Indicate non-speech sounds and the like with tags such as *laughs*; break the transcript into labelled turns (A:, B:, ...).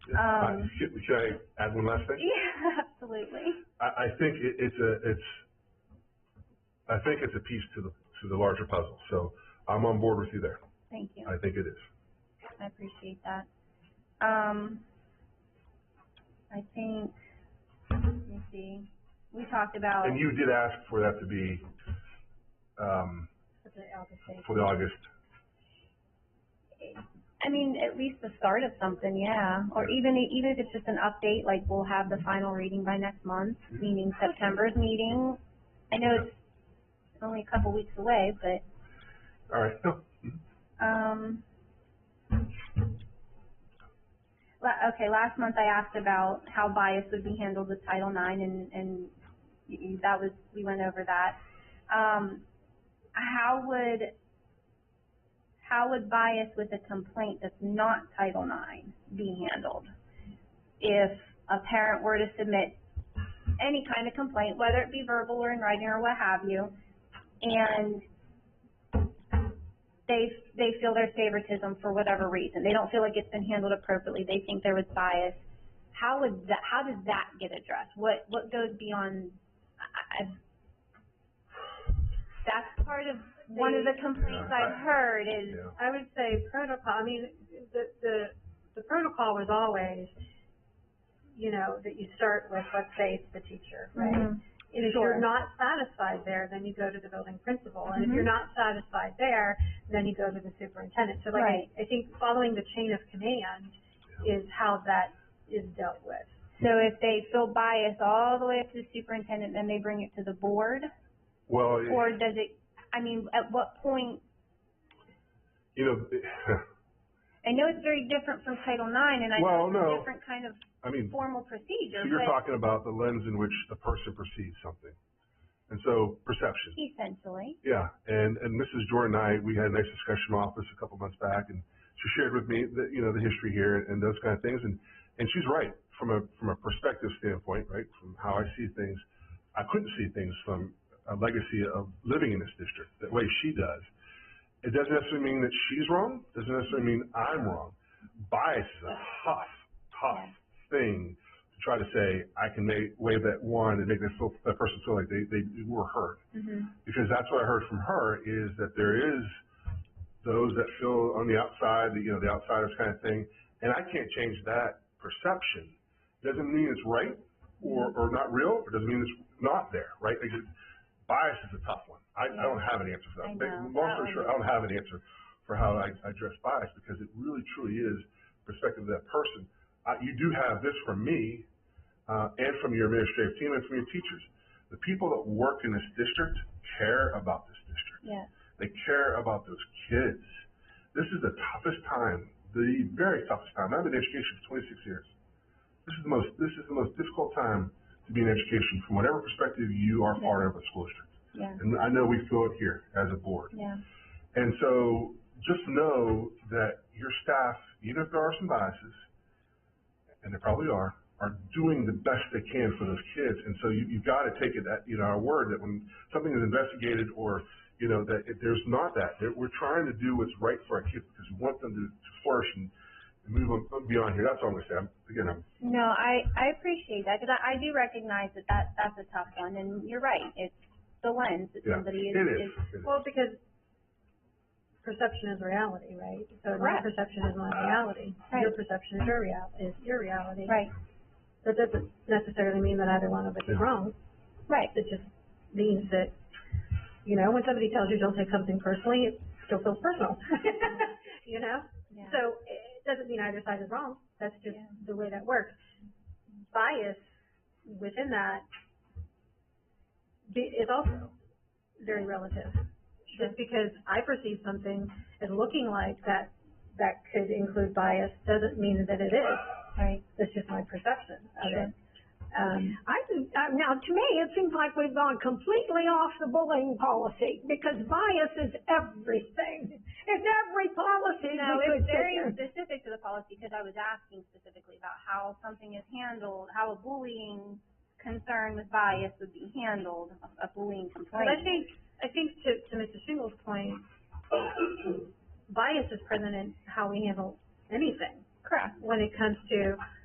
A: Um,
B: Should, should I add one last thing?
A: yeah, *laughs* absolutely.
B: I, I think it, it's a, it's, I think it's a piece to the, to the larger puzzle, so I'm on board with you there.
A: Thank you.
B: I think it is.
A: I appreciate that. Um, I think, let me see, we talked about.
B: And you did ask for that to be, um, for the August,
A: I mean, at least the start of something, yeah, or even, even if it's just an update, like we'll have the final reading by next month, meaning
B: Mm-hmm.
A: September's meeting. I know it's only a couple weeks away, but,
B: all right, no,
A: um. La- okay, last month I asked about how bias would be handled with Title IX and, and y- y- that was, we went over that. Um, how would, how would bias with a complaint that's not Title IX be handled? If a parent were to submit any kind of complaint, whether it be verbal or in writing or what have you, and they, they feel there's favoritism for whatever reason, they don't feel like it's been handled appropriately, they think there was bias, how would that, how does that get addressed? What, what goes beyond, I, I, that's part of, one of the complaints I've heard is,
B: yeah.
C: I would say protocol, I mean, the, the, the protocol was always, you know, that you start with, let's say it's the teacher, right?
A: right?
C: And if
A: Mm-hmm. Sure. Mm-hmm.
C: you're not satisfied there, then you go to the building principal, and if you're not satisfied there, then you go to the superintendent. So like,
A: Right.
C: I- I think following the chain of command is how that is dealt with.
A: So if they feel bias all the way up to the superintendent, then they bring it to the board?
B: well, it-
A: Or does it, I mean, at what point,
B: you know, *laughs* it-
A: I know it's very different from Title IX, and I
B: Well,
A: know it's
B: no.
A: a different kind of
B: I mean,
A: formal
B: So
A: procedure,
B: you're
A: but
B: talking about the lens in which a person perceives something. And so perception,
A: essentially,
B: yeah. And, and Mrs. Jordan and I, we had a nice discussion in my office a couple months back and she shared with me the, you know, the history here and those kind of things. And, and she's right from a, from a perspective standpoint, right? From how I see things. I couldn't see things from a legacy of living in this district the way she does. It doesn't necessarily mean that she's wrong. Doesn't necessarily mean I'm wrong. Bias is a tough, tough thing to try to say, I can make, wave that wand and make that, feel, that person feel like they, they were hurt.
A: Mm-hmm.
B: Because that's what I heard from her is that there is those that feel on the outside, the, you know, the outsiders kind of thing. And I can't change that perception. Doesn't mean it's right or, or not real. It doesn't mean it's not there, right? Because bias is a tough one. I, I don't have an answer for that.
A: I
B: But
A: know.
B: Long
A: That
B: story
A: one-
B: short, I don't have an answer for how I I address bias because it really truly is perspective of that person. Uh, you do have this from me, uh, and from your administrative team and from your teachers. The people that work in this district care about this district.
A: yes.
B: They care about those kids. This is the toughest time, the very toughest time. I've been in education for twenty-six years. This is the most, this is the most difficult time to be in education from whatever perspective you are part of a school district.
A: Yeah.
B: And I know we feel it here as a board.
A: Yeah,
B: And so just know that your staff, even if there are some biases, and there probably are, are doing the best they can for those kids. And so you, you've got to take it at, you know, our word that when something is investigated or, you know, that if there's not that, that we're trying to do what's right for our kids because we want them to, to flourish and move on beyond here. That's all I'm going to say. I'm, again, I'm,
A: no, I, I appreciate that, because I, I do recognize that that, that's a tough one, and you're right, it's the lens that
B: yeah,
A: somebody
B: it is. It is.
C: Well, because perception is reality, right? So my
A: Correct.
C: perception is my reality. Your
A: Right.
C: perception is your real, is your reality.
A: Right,
C: That doesn't necessarily mean that either one of us is wrong.
A: right,
C: It just means that, you know, when somebody tells you don't take something personally, it still feels personal. *laughs* you know?
A: yeah,
C: So it doesn't mean either side is wrong. That's just
A: Yeah.
C: the way that works. Bias within that be- is also very relative. Just because I perceive something as looking like that, that could include bias, doesn't mean that it is.
A: right,
C: That's just my perception of it. Um,
D: I, think- uh, now, to me, it seems like we've gone completely off the bullying policy because bias is everything. It's every policy
A: No,
D: we
A: it's
D: could sit
A: very
D: there.
A: specific to the policy, because I was asking specifically about how something is handled, how a bullying concern with bias would be handled, a bullying
C: But I
A: complaint.
C: think, I think to, to Mr. Shingle's point, bias is present in how we handle anything
A: Correct.
C: when it comes to